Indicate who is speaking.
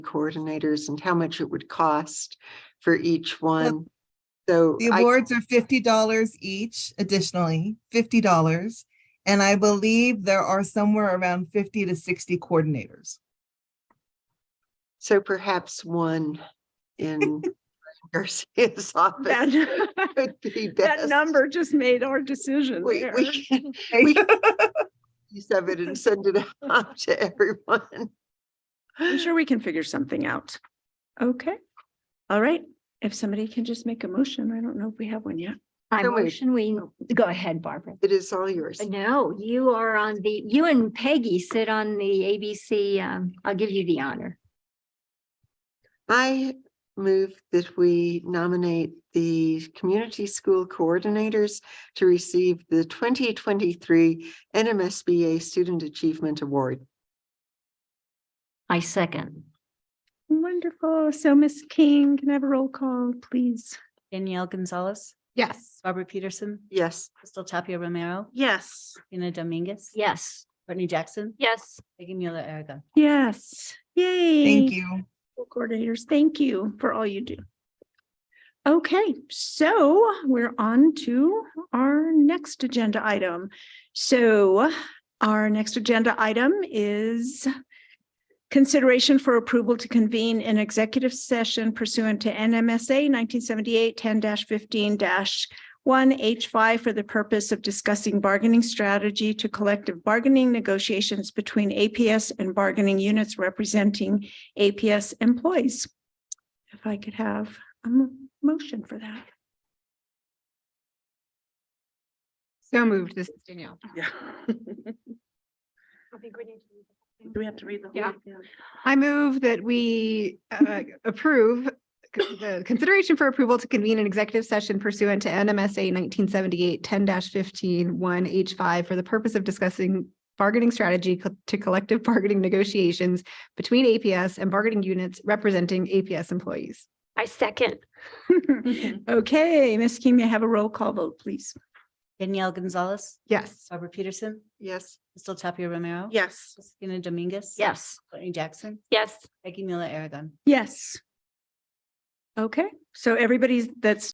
Speaker 1: coordinators and how much it would cost for each one. So
Speaker 2: The
Speaker 1: I-
Speaker 2: awards are fifty dollars each additionally, fifty dollars. And I believe there are somewhere around fifty to sixty coordinators.
Speaker 1: so perhaps one in Garcia's office
Speaker 3: That,
Speaker 1: would be best.
Speaker 3: that number just made our decision
Speaker 1: We,
Speaker 3: there.
Speaker 1: we can We- use of it and send it out to everyone.
Speaker 3: I'm sure we can figure something out. Okay. All right. If somebody can just make a motion, I don't know if we have one yet.
Speaker 4: I
Speaker 1: So moved.
Speaker 4: motion we, oh, go ahead, Barbara.
Speaker 1: It is all yours.
Speaker 4: No, you are on the, you and Peggy sit on the ABC, um, I'll give you the honor.
Speaker 1: I move that we nominate the community school coordinators to receive the twenty twenty-three NMSBA Student Achievement Award.
Speaker 4: I second.
Speaker 3: Wonderful. So Miss King, can I have a roll call, please?
Speaker 5: Danielle Gonzalez,
Speaker 3: Yes.
Speaker 5: Barbara Peterson,
Speaker 1: Yes.
Speaker 5: Crystal Tapia Romero,
Speaker 3: Yes.
Speaker 5: Ina Dominguez.
Speaker 4: Yes.
Speaker 5: Courtney Jackson,
Speaker 4: Yes.
Speaker 5: Peggy Mueller Aragon.
Speaker 3: Yes. Yay.
Speaker 2: Thank you.
Speaker 3: School Coordinators, thank you for all you do. Okay, so we're on to our next agenda item. So our next agenda item is consideration for approval to convene an executive session pursuant to NMSA 1978 10-15 one H five for the purpose of discussing bargaining strategy to collective bargaining negotiations between APS and bargaining units representing APS employees. If I could have a mo- motion for that.
Speaker 6: So moved. This is Danielle.
Speaker 3: Yeah. Do we have to read the
Speaker 6: Yeah. I move that we uh, approve c- the consideration for approval to convene an executive session pursuant to NMSA 1978 10-15 1H5 for the purpose of discussing bargaining strategy co- to collective bargaining negotiations between APS and bargaining units representing APS employees.
Speaker 4: I second.
Speaker 3: whole? Okay, Ms. King, may I have a roll call vote, please?
Speaker 5: Danielle Gonzalez,
Speaker 6: Yes.
Speaker 5: Barbara Peterson,
Speaker 1: Yes.
Speaker 5: Crystal Tapia Romero.
Speaker 3: Yes.
Speaker 5: Ina Dominguez.
Speaker 4: Yes.
Speaker 5: Courtney Jackson,
Speaker 4: Yes.
Speaker 5: Peggy Mueller Aragon.
Speaker 3: Yes. Okay, so everybody's, that's